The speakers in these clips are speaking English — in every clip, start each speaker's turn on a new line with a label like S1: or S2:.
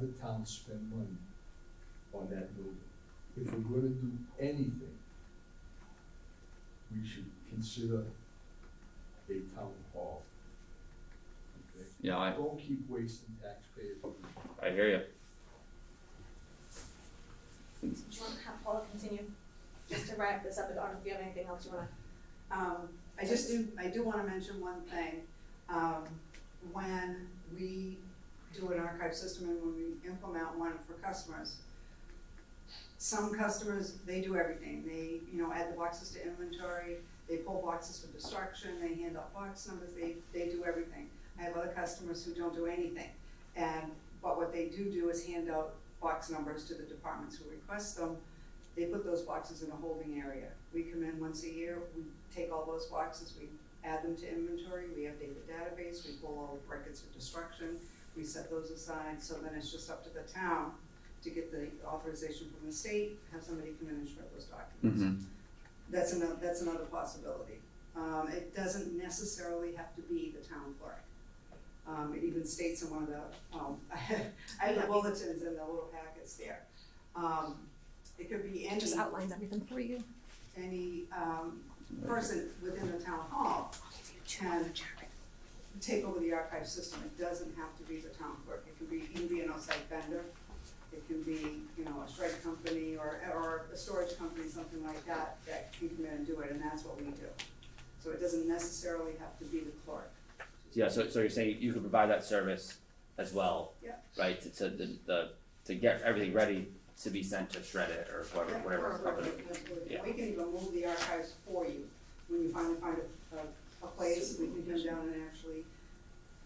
S1: the town spend money on that building. If we're gonna do anything, we should consider a town hall. Okay?
S2: Yeah, I,
S1: Don't keep wasting taxpayers' money.
S2: I hear you.
S3: Do you want to have Paula continue, just to wrap this up, I don't know if you have anything else you wanna,
S4: Um, I just do, I do wanna mention one thing. Um, when we do an archive system and when we implement one for customers, some customers, they do everything. They, you know, add the boxes to inventory, they pull boxes for destruction, they hand out box numbers, they, they do everything. I have other customers who don't do anything. And, but what they do do is hand out box numbers to the departments who request them, they put those boxes in a holding area. We come in once a year, we take all those boxes, we add them to inventory, we update the database, we pull all the records of destruction, we set those aside, so then it's just up to the town to get the authorization from the state, have somebody come in and shred those documents.
S2: Mm-hmm.
S4: That's another, that's another possibility. Um, it doesn't necessarily have to be the town clerk. Um, it even states in one of the, um, I have the bulletins and the little packets there. Um, it could be any
S5: just outlines everything for you.
S4: any um, person within the town hall can take over the archive system. It doesn't have to be the town clerk. It can be, it can be an outside vendor. It can be, you know, a shred company or, or a storage company, something like that, that can come in and do it, and that's what we do. So it doesn't necessarily have to be the clerk.
S2: Yeah, so, so you're saying you could provide that service as well?
S4: Yeah.
S2: Right, to, to the, the, to get everything ready to be sent to shred it or whatever, whatever company. yeah.
S4: We can even move the archives for you. When you finally find a, a, a place, we can come down and actually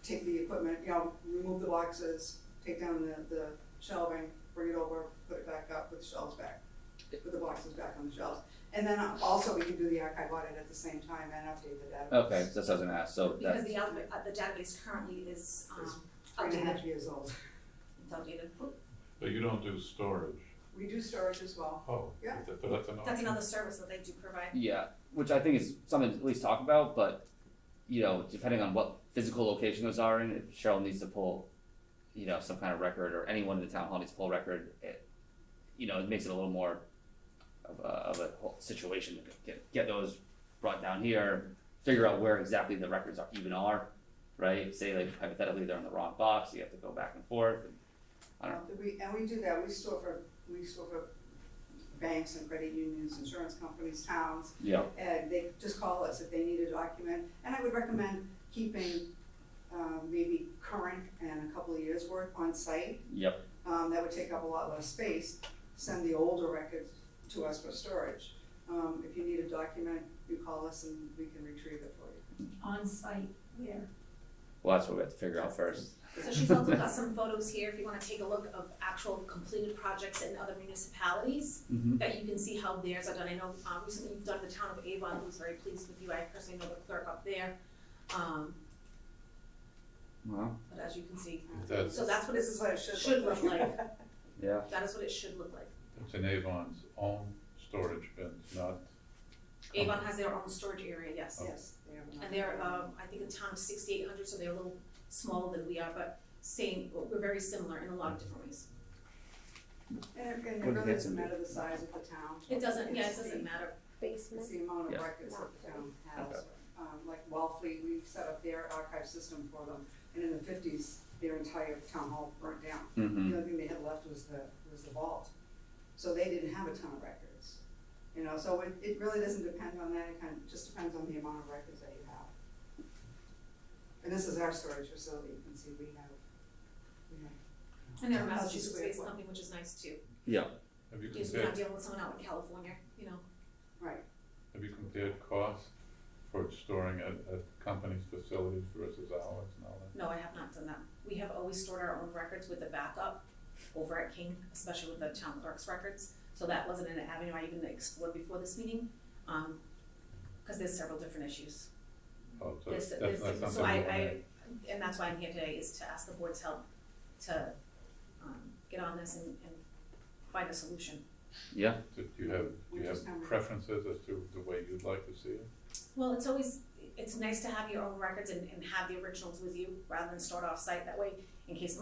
S4: take the equipment, you know, remove the boxes, take down the, the shelving, bring it over, put it back up, put the shelves back, put the boxes back on the shelves. And then also we can do the archive audit at the same time and update the database.
S2: Okay, so that's what I was gonna ask, so
S3: because
S2: that,
S3: the alpha, uh, the database currently is, um,
S4: Three and a
S3: updated,
S4: half years old.
S3: it's outdated.
S6: But you don't do storage?
S4: We do storage as well.
S6: Oh.
S4: Yeah.
S6: But that's an
S3: That's
S6: option.
S3: another service that they do provide.
S2: yeah, which I think is something to at least talk about, but, you know, depending on what physical location those are in, if Cheryl needs to pull, you know, some kind of record, or anyone in the town hall needs to pull a record, it, you know, it makes it a little more of a, of a whole situation to get, get those brought down here, figure out where exactly the records are, even are, right? Say like hypothetically they're in the wrong box, you have to go back and forth, and, I don't know.
S4: Uh, We, and we do that, we store for, we store for banks and credit unions, insurance companies, towns,
S2: you know,
S4: and they just call us if they need a document. And I would recommend keeping, um, maybe current and a couple of years' worth on site.
S2: Yep.
S4: Um, that would take up a lot less space, send the older records to us for storage. Um, if you need a document, you call us and we can retrieve it for you.
S7: on site where?
S2: well, that's what we have to figure out first.
S3: So she's also got some photos here, if you wanna take a look of actual completed projects in other municipalities,
S2: Mm-hmm.
S3: that you can see how theirs are done. I know, um, recently you've done the town of Avon, who's very pleased with you, I personally know the clerk up there. Um,
S2: Wow,
S3: but as you can see,
S6: That's,
S3: so that's what it
S4: This is what it
S3: should look like,
S2: yeah,
S3: that is what it should look like.
S6: that's in Avon's own storage bins, not,
S3: Avon has their own storage area, yes.
S4: Yes. they have
S3: And they're, um, I think the town's sixty-eight hundred, so they're a little smaller than we are, but same, we're very similar in a lot of different ways.
S4: And it- and
S2: Would
S4: it
S2: it
S4: really
S2: hit
S4: doesn't
S2: somebody?
S4: matter the size of the town.
S3: It doesn't, yeah, it
S4: It's the-
S3: doesn't matter.
S4: It's
S5: Basement.
S4: the amount of
S2: Yeah.
S4: records that the town
S2: Okay.
S4: has, um, like Wellfleet, we set up their archive system for them, and in the fifties, their entire town hall burnt down.
S2: mm-hmm,
S4: The only thing they had left was the, was the vault, so they didn't have a ton of records, you know, so it, it really doesn't depend on that, it kind of just depends on the amount of records that you have. And this is our storage facility, you can see we have, we have.
S3: And they're a
S4: 10,000 square
S3: Massachusetts-based
S4: foot.
S3: company, which is nice too,
S2: yeah.
S6: have you
S3: because we're not
S6: compared,
S3: dealing with someone out in California, you know.
S4: Right,
S6: have you compared cost for storing at, at company's facilities versus ours and all that?
S3: No, I have not done that. We have always stored our own records with the backup over at King, especially with the town clerk's records. So that wasn't an avenue I even explored before this meeting, um, because there's several different issues.
S6: Oh, so
S3: This,
S6: that's
S3: this,
S6: not
S3: so
S6: something
S3: I,
S6: we wanna-
S3: I, and that's why I'm here today, is to ask the board's help to, um, get on this and, and find a solution.
S6: Do do you have, do
S4: We
S6: you
S4: just
S6: have
S4: have-
S6: preferences as to the way you'd like to see it?
S3: Well, it's always, it's nice to have your own records and, and have the originals with you, rather than start off-site, that way, in case